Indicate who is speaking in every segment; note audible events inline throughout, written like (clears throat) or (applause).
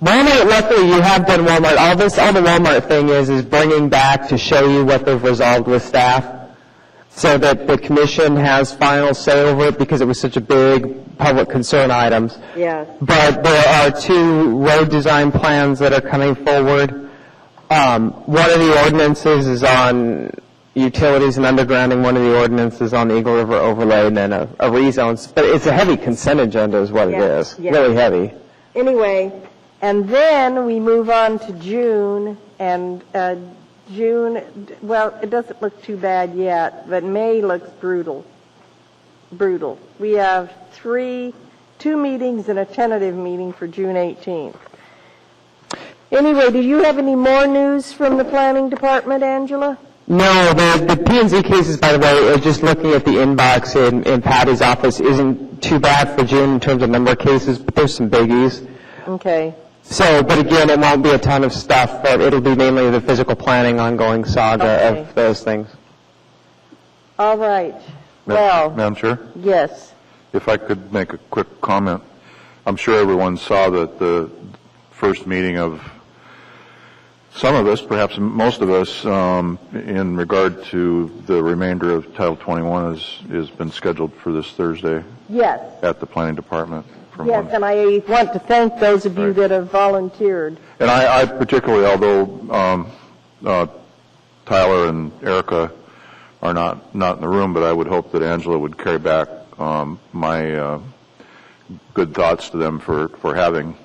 Speaker 1: Walmart, luckily, you have done Walmart. All this, all the Walmart thing is, is bringing back to show you what they've resolved with staff, so that the commission has final say over it, because it was such a big public concern items.
Speaker 2: Yes.
Speaker 1: But there are two road design plans that are coming forward. Um, One of the ordinances is on utilities and undergrounding, one of the ordinances is on the Eagle River overlay, and then a a rezone. But it's a heavy consent agenda is what it
Speaker 2: Yeah,
Speaker 1: is,
Speaker 2: yeah.
Speaker 1: really heavy.
Speaker 2: Anyway, and then we move on to June, and uh, June, well, it doesn't look too bad yet, but May looks brutal. Brutal. We have three, two meetings and a tentative meeting for June 18th. Anyway, do you have any more news from the planning department, Angela?
Speaker 1: No, the, the P and Z cases, by the way, uh, just looking at the inbox in, in Patty's office, isn't too bad for June in terms of number of cases, but there's some biggies.
Speaker 2: Okay.
Speaker 1: So, but again, it won't be a ton of stuff, but it'll be mainly the physical planning ongoing saga
Speaker 2: Okay.
Speaker 1: of those things.
Speaker 2: All right.
Speaker 3: Ma-
Speaker 2: Well,
Speaker 3: Madam Chair,
Speaker 2: yes.
Speaker 3: if I could make a quick comment. I'm sure everyone saw that the first meeting of some of us, perhaps most of us, um, in regard to the remainder of Title 21 is, has been scheduled for this Thursday
Speaker 2: Yes.
Speaker 3: at the Planning Department. from
Speaker 2: Yes,
Speaker 3: one-
Speaker 2: and I want to thank those of you
Speaker 3: Right.
Speaker 2: that have volunteered.
Speaker 3: And I, I particularly, although um, uh, Tyler and Erica are not, not in the room, but I would hope that Angela would carry back um, my uh, good thoughts to them for, for having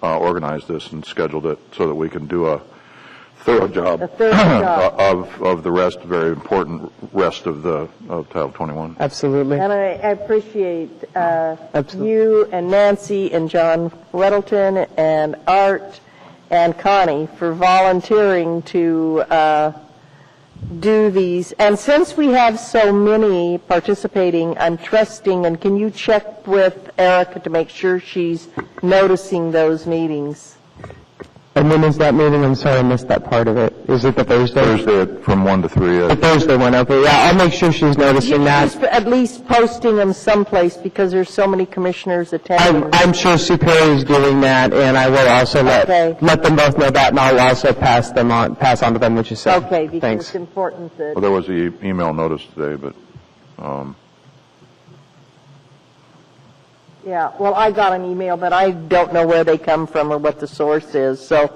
Speaker 3: uh, organized this and scheduled it so that we can do a thorough job
Speaker 2: A thorough job.
Speaker 3: (clears throat) of, of the rest, very important rest of the, of Title 21.
Speaker 1: Absolutely.
Speaker 2: And I I appreciate uh,
Speaker 1: Absolutely.
Speaker 2: you and Nancy and John Weddleton and Art and Connie for volunteering to uh, do these. And since we have so many participating, I'm trusting, and can you check with Erica to make sure she's noticing those meetings?
Speaker 1: And when is that meeting? I'm sorry, I missed that part of it. Is it the Thursday?
Speaker 3: Thursday at- from 1 to 3.
Speaker 1: The
Speaker 3: uh,
Speaker 1: Thursday one, okay, yeah, I'll make sure she's noticing that.
Speaker 2: Just At least posting them someplace because there's so many commissioners
Speaker 1: I'm,
Speaker 2: attending.
Speaker 1: I'm sure Superior's doing that, and I will also
Speaker 2: Okay.
Speaker 1: let, let them both know that, and I'll also pass them on, pass on to them what you said.
Speaker 2: Okay, because
Speaker 1: Thanks.
Speaker 2: it's important that.
Speaker 3: Well, there was the e- email notice today, but um,
Speaker 2: Yeah, well, I got an email, but I don't know where they come from or what the source is, so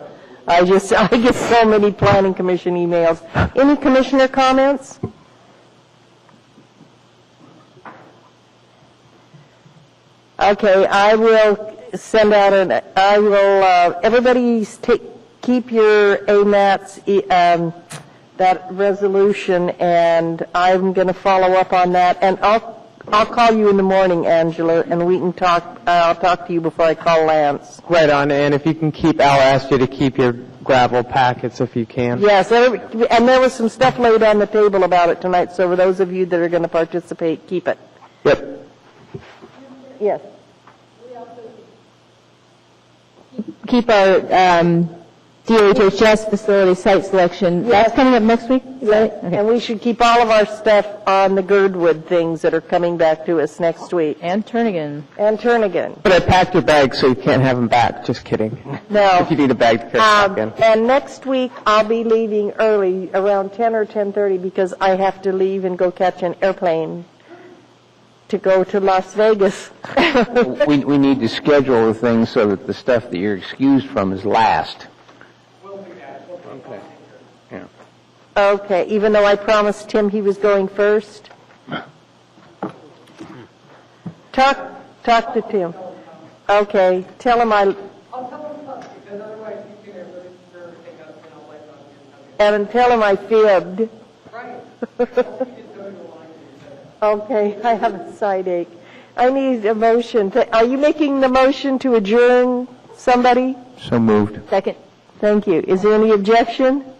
Speaker 2: I just, (laughs) I get so many planning commission emails. Any commissioner comments? Okay, I will send out an, I will, uh, everybody take, keep your AMATs, e- um, that resolution, and I'm going to follow up on that. And I'll, I'll call you in the morning, Angela, and we can talk, uh, I'll talk to you before I call Lance.
Speaker 1: Right on, and if you can keep, I'll ask you to keep your gravel packets if you can.
Speaker 2: Yes, every- and there was some stuff laid on the table about it tonight, so for those of you that are going to participate, keep it.
Speaker 1: Yep.
Speaker 2: Yes.
Speaker 4: keep our um, DHHS facility site selection. That's coming up next week? Is that it? Okay.
Speaker 2: And we should keep all of our stuff on the Girdwood things that are coming back to us next week.
Speaker 4: And Turnigan.
Speaker 2: And Turnigan,
Speaker 1: But I packed your bags so you can't have them back, just kidding.
Speaker 2: no.
Speaker 1: If you need a bag to carry back
Speaker 2: Um,
Speaker 1: in.
Speaker 2: and next week, I'll be leaving early, around 10 or 10:30, because I have to leave and go catch an airplane to go to Las Vegas. (laughs)
Speaker 5: We, we need to schedule the things so that the stuff that you're excused from is last.
Speaker 2: Okay, even though I promised Tim he was going first? Talk, talk to Tim. Okay, tell him I... And tell him I fibbed. (laughs) Okay, I have a side ache. I need a motion. Th- Are you making the motion to adjourn, somebody?
Speaker 5: So moved.
Speaker 4: Second.
Speaker 2: Thank you. Is there any objection?